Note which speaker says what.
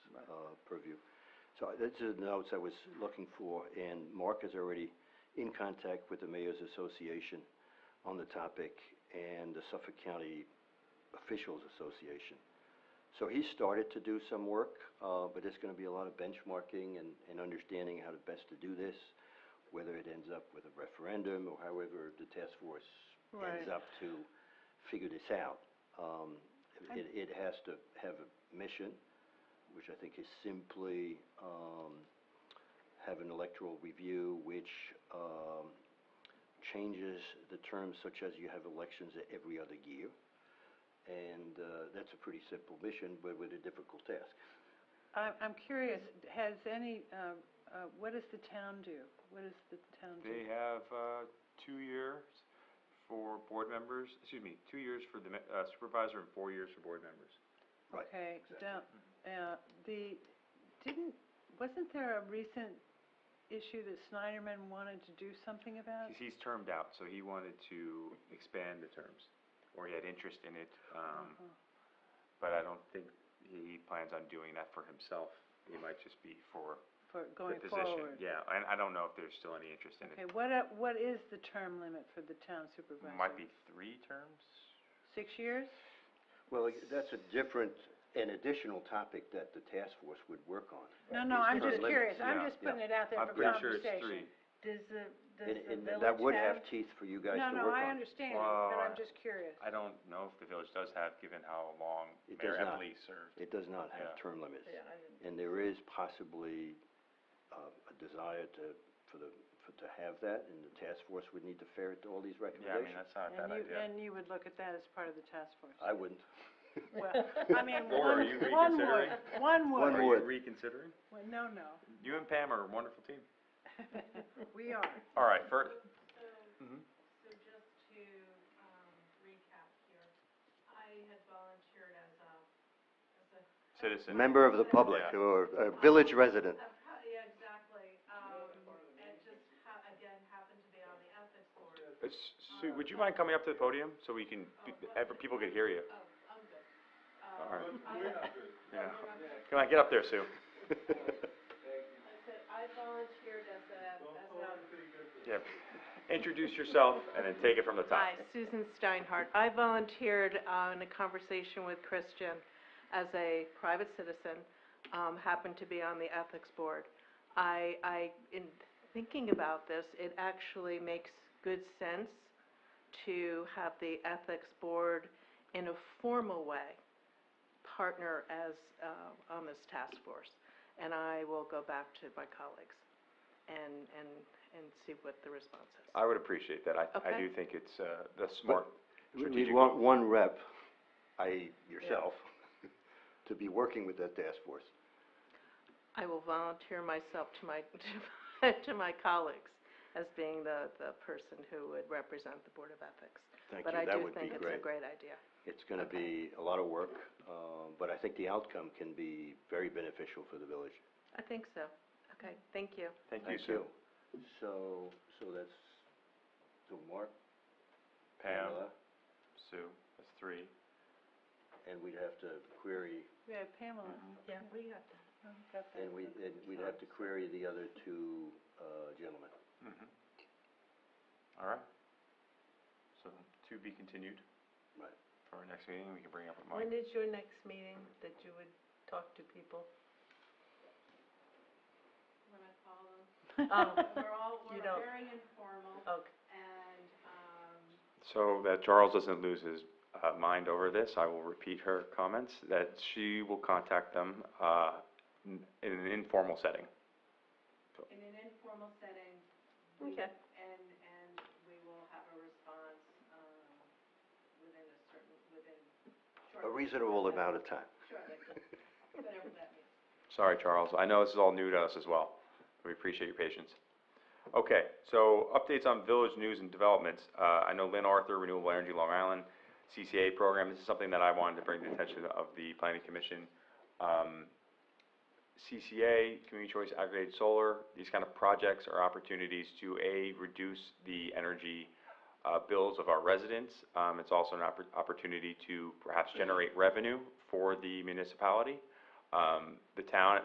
Speaker 1: uh, So these are the notes I was looking for, and Mark is already in contact with the Mayor's Association on the topic and the Suffolk County Officials Association. So he started to do some work, uh, but there's gonna be a lot of benchmarking and, and understanding how to best to do this, whether it ends up with a referendum or however the task force ends
Speaker 2: Right.
Speaker 1: up to figure this out. Um, it, it has to have a mission, which I think is simply, um, have an electoral review which, um, changes the terms such as you have elections every other year. And, uh, that's a pretty simple mission, but with a difficult task.
Speaker 2: I'm, I'm curious, has any, uh, uh, what does the town do? What does the town
Speaker 3: They
Speaker 2: do?
Speaker 3: have, uh, two years for board members, excuse me, two years for the ma- uh, supervisor and four years for board members.
Speaker 1: Right,
Speaker 2: Okay,
Speaker 1: exactly.
Speaker 2: down, uh, the, didn't, wasn't there a recent issue that Snyderman wanted to do something about?
Speaker 3: He's, he's termed out, so he wanted to expand the terms, or he had interest in it, um,
Speaker 2: Uh-huh.
Speaker 3: but I don't think he plans on doing that for himself. He might just be for
Speaker 2: For
Speaker 3: the
Speaker 2: going
Speaker 3: position.
Speaker 2: forward?
Speaker 3: Yeah, and I don't know if there's still any interest in it.
Speaker 2: Okay, what, uh, what is the term limit for the town supervisor?
Speaker 3: Might be three terms?
Speaker 2: Six years?
Speaker 1: Well, that's a different and additional topic that the task force would work on.
Speaker 2: No, no, I'm just
Speaker 1: Term limits,
Speaker 2: curious,
Speaker 3: yeah,
Speaker 2: I'm just putting it out there
Speaker 3: I'm
Speaker 2: for
Speaker 3: pretty sure
Speaker 2: conversation.
Speaker 3: it's three.
Speaker 2: Does the, does
Speaker 1: And,
Speaker 2: the
Speaker 1: and
Speaker 2: village
Speaker 1: that would
Speaker 2: have?
Speaker 1: have teeth for you guys to work on.
Speaker 2: No, no, I understand, but
Speaker 3: Well,
Speaker 2: I'm
Speaker 3: I-
Speaker 2: just curious.
Speaker 3: I don't know if the village does have, given how long
Speaker 1: It
Speaker 3: Mayor
Speaker 1: does not.
Speaker 3: Epley served.
Speaker 1: It does not have
Speaker 3: Yeah.
Speaker 1: term limits.
Speaker 2: Yeah, I didn't-
Speaker 1: And there is possibly, uh, a desire to, for the, for, to have that, and the task force would need to ferret all these
Speaker 3: Yeah, I mean,
Speaker 1: recommendations.
Speaker 3: that's not a bad
Speaker 2: And you,
Speaker 3: idea.
Speaker 2: and you would look at that as part of the task force?
Speaker 1: I wouldn't.
Speaker 2: Well, I mean,
Speaker 3: Or are
Speaker 2: one,
Speaker 3: you
Speaker 2: one word,
Speaker 1: One
Speaker 2: one word,
Speaker 1: word.
Speaker 3: Are
Speaker 1: would.
Speaker 3: you reconsidering?
Speaker 2: Well, no, no,
Speaker 3: You and Pam are a wonderful team.
Speaker 2: we are,
Speaker 3: All right, first,
Speaker 4: So,
Speaker 3: Mhm.
Speaker 4: so just to, um, recap here, I had volunteered as a, as a.
Speaker 3: citizen.
Speaker 1: Member of the public,
Speaker 3: Yeah.
Speaker 1: or a village resident.
Speaker 4: a pro- Yeah, exactly, um, and just ha- again, happened to be on the ethics board.
Speaker 3: Uh, S- Sue, would you mind coming up to the podium so we can, be- ever- people could hear you?
Speaker 4: Oh, I'm good.
Speaker 3: All
Speaker 4: Um,
Speaker 3: right.
Speaker 4: I-
Speaker 3: Yeah.
Speaker 4: I'm good.
Speaker 3: Come on, get up there, Sue.
Speaker 4: I said, I volunteered as a, as a.
Speaker 3: Yeah. Introduce yourself and then take it from the top.
Speaker 4: Hi, Susan Steinhardt. I volunteered uh, in a conversation with Christian as a private citizen, um, happened to be on the ethics board. I, I, in thinking about this, it actually makes good sense to have the ethics board in a formal way partner as, uh, on this task force. And I will go back to my colleagues and, and, and see what the response is.
Speaker 3: I would appreciate that. I, I
Speaker 4: Okay.
Speaker 3: do think it's, uh, the smart
Speaker 1: We- We
Speaker 3: strategic
Speaker 1: want
Speaker 3: move.
Speaker 1: one rep, i.e. yourself, to be working with that task force.
Speaker 4: I will volunteer myself to my, to my, to my colleagues as being the, the person who would represent the Board of Ethics.
Speaker 1: Thank you,
Speaker 4: But I
Speaker 1: that
Speaker 4: do
Speaker 1: would be
Speaker 4: think it's a
Speaker 1: great.
Speaker 4: great idea.
Speaker 1: It's gonna be a lot of work, um, but I think the outcome can be very beneficial for the village.
Speaker 4: I think so. Okay, thank you.
Speaker 3: Thank you, Sue.
Speaker 1: you. So, so that's, so Mark,
Speaker 3: Pam,
Speaker 1: Pamela,
Speaker 3: Sue, that's three.
Speaker 1: and we'd have to query,
Speaker 2: yeah, Pamela,
Speaker 4: Yeah, we got that.
Speaker 3: Mm-hmm.
Speaker 2: oh, got that.
Speaker 1: and we, and we'd have to query the other two, uh, gentlemen.
Speaker 3: Mhm. All right. So to be continued.
Speaker 1: Right.
Speaker 3: For our next meeting, we can bring up with Mike.
Speaker 5: When is your next meeting that you would talk to people?
Speaker 4: When I call them,
Speaker 3: Um,
Speaker 5: Oh.
Speaker 4: we're all,
Speaker 5: You
Speaker 4: we're
Speaker 5: don't-
Speaker 4: very informal
Speaker 5: Okay,
Speaker 4: and, um,
Speaker 3: So that Charles doesn't lose his uh, mind over this, I will repeat her comments, that she will contact them uh, in in an informal setting.
Speaker 4: in an informal setting. we-
Speaker 5: okay,
Speaker 4: And, and we will have a response, um, within a certain,
Speaker 1: A
Speaker 4: within. shortly.
Speaker 1: reasonable amount of time.
Speaker 4: Shortly, whatever that means.
Speaker 3: Sorry, Charles, I know this is all new to us as well. We appreciate your patience. Okay, so updates on village news and developments. Uh, I know Lynn Arthur, Renewable Energy Long Island, CCA program, this is something that I wanted to bring to the attention of the planning commission. Um, CCA, Community Choice Aggregated Solar, these kind of projects are opportunities to, A, reduce the energy, uh, bills of our residents. Um, it's also an oppor- opportunity to perhaps generate revenue for the municipality. Um, the town